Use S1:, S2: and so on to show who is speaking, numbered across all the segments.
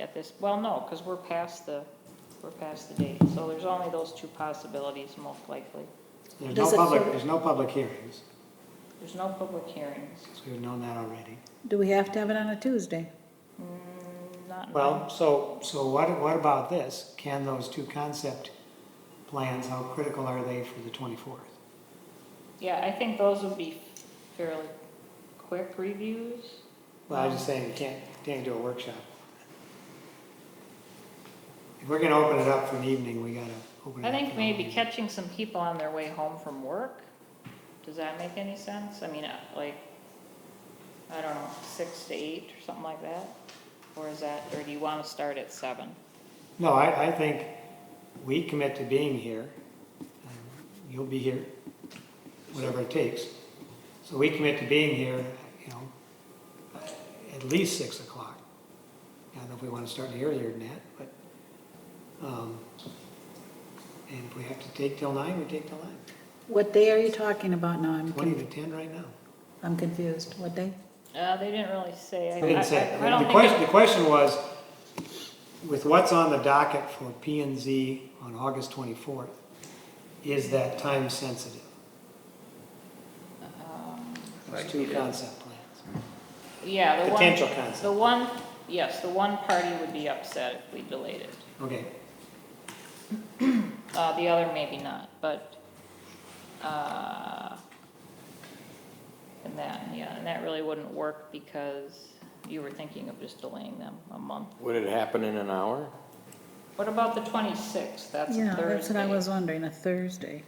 S1: at this, well, no, because we're past the, we're past the date. So there's only those two possibilities most likely.
S2: There's no
S3: Does it
S2: public,
S3: feel-
S2: there's no public hearings,
S1: There's no public hearings.
S2: so we've known that already.
S4: Do we have to have it on a Tuesday?
S1: Mm, Not,
S2: Well, so, so what, what about this? Can those two concept plans, how critical are they for the 24th?
S1: yeah, I think those would be fairly quick reviews.
S2: Well, I was just saying, we can't, can't do a workshop. If we're gonna open it up for an evening, we gotta open
S1: I
S2: it up.
S1: think
S2: for an
S1: maybe
S2: evening.
S1: catching some people on their way home from work. Does that make any sense? I mean, uh, like, I don't know, six to eight or something like that? Or is that, or do you want to start at seven?
S2: No, I, I think we commit to being here. Um, You'll be here, whatever it takes. So we commit to being here, you know, at least six o'clock. I don't know if we want to start any earlier than that, but, um, and if we have to take till nine, we take till nine.
S4: What day are you talking about now? I'm,
S2: Twenty
S4: con-
S2: to ten right now.
S4: I'm confused. What day?
S1: Uh, they didn't really say.
S2: I didn't say,
S1: I don't
S2: the
S1: think
S2: question,
S1: it-
S2: the question was, with what's on the docket for P and Z on August twenty-fourth, is that time sensitive? Those two concept plans,
S1: Yeah, the one.
S2: potential
S1: The
S2: concept,
S1: one, yes, the one party would be upset if we delayed it.
S2: okay.
S1: Uh, the other maybe not, but, uh, and that, yeah, and that really wouldn't work because you were thinking of just delaying them a month.
S3: Would it happen in an hour?
S1: What about the twenty-sixth? That's
S4: Yeah,
S1: Thursday.
S4: that's what I was wondering, a Thursday.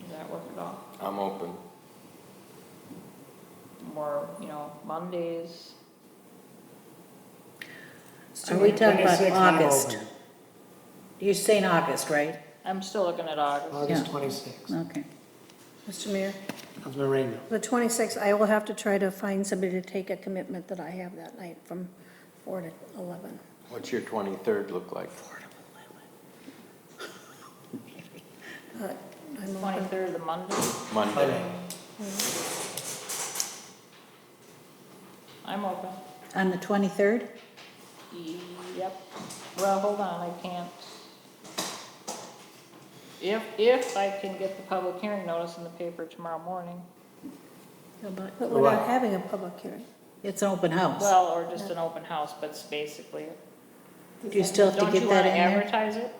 S1: Does that work at all?
S3: I'm open.
S1: Or, you know, Mondays?
S4: Are we talking about
S2: 26th, I'm
S4: August?
S2: open.
S4: You're saying August, right?
S1: I'm still looking at August.
S2: August
S4: Yeah.
S2: twenty-sixth,
S4: Okay.
S5: Mr. Mayor,
S2: Councilman Rainville.
S5: the 26th, I will have to try to find somebody to take a commitment that I have that night from 4 to 11.
S3: What's your 23rd look like?
S5: But I'm open.
S1: Twenty-third, the Monday?
S3: Monday?
S1: I'm open.
S4: On the 23rd?
S1: Yep. Well, hold on, I can't. If, if I can get the public hearing notice in the paper tomorrow morning,
S4: How about-
S5: But we're not
S2: Right.
S5: having a public hearing.
S4: It's an open house.
S1: well, or just an open house, but it's basically.
S4: Do you still have to
S1: Don't you
S4: get
S1: want to
S4: that in there?
S1: advertise it?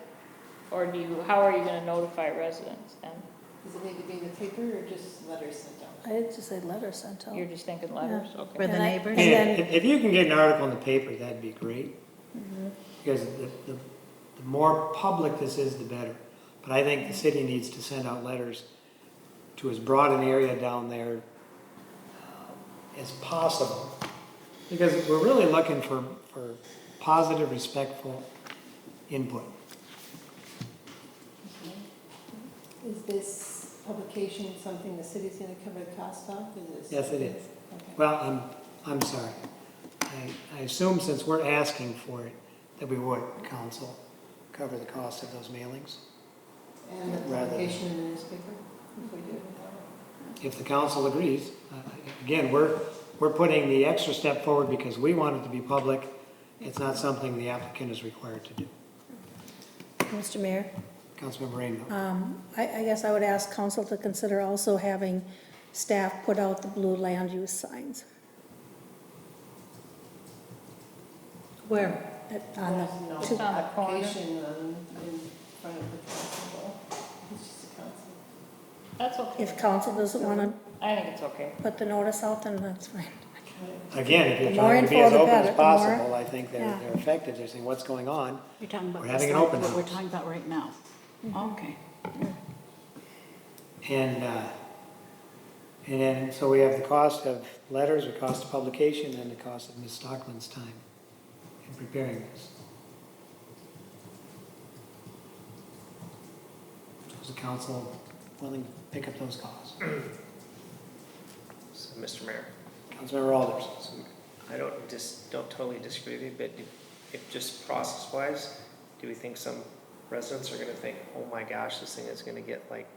S1: Or do you, how are you going to notify residents then?
S6: Does it need to be in the paper or just letters sent out?
S5: I had to say letter sent
S6: Oh.
S5: out.
S1: You're just thinking letters, okay.
S4: For the
S5: And I-
S4: neighbors?
S5: And
S2: If,
S5: then-
S2: if- if you can get an article in the paper, that'd be great. Mm-hmm. Because the, the, the more public this is, the better. But I think the city needs to send out letters to as broad an area down there uh, as possible. Because we're really looking for, for positive, respectful input.
S6: Is this publication something the city's gonna cover the cost of? Is this-
S2: Yes, it is.
S6: Okay.
S2: Well, I'm, I'm sorry. I, I assume since we're asking for it, that we would, council, cover the cost of those mailings.
S6: And the
S2: Rather-
S6: publication in the newspaper, if we do.
S2: if the council agrees. Uh, Again, we're, we're putting the extra step forward because we want it to be public. It's not something the applicant is required to do.
S5: Mr. Mayor,
S2: Councilmember Rainville.
S5: um, I, I guess I would ask council to consider also having staff put out the blue land use signs
S4: Where?
S5: at- on the
S6: There's no
S1: Just on the corner.
S6: Publication um, in front of the council, though. it's just a council.
S1: That's okay.
S5: If council doesn't want to
S1: I think it's okay.
S5: put the notice out, then that's fine.
S2: Again, if you're
S5: the more
S2: trying to be
S5: info,
S2: as
S5: the
S2: open
S5: better, the
S2: as
S5: more-
S2: possible, I think they're,
S5: Yeah.
S2: they're effective. They're saying, what's going on?
S4: You're talking about.
S2: We're having an open
S4: What we're
S2: house.
S4: talking about right now. Okay.
S2: And, uh, and then, so we have the cost of letters, the cost of publication, and the cost of Ms. Stockman's time in preparing this. Is the council willing to pick up those costs?
S7: So, Mr. Mayor,
S2: Councilmember Alders?
S7: so I don't dis don't totally disagree with you, but if- if just process-wise, do we think some residents are gonna think, oh my gosh, this thing is gonna get like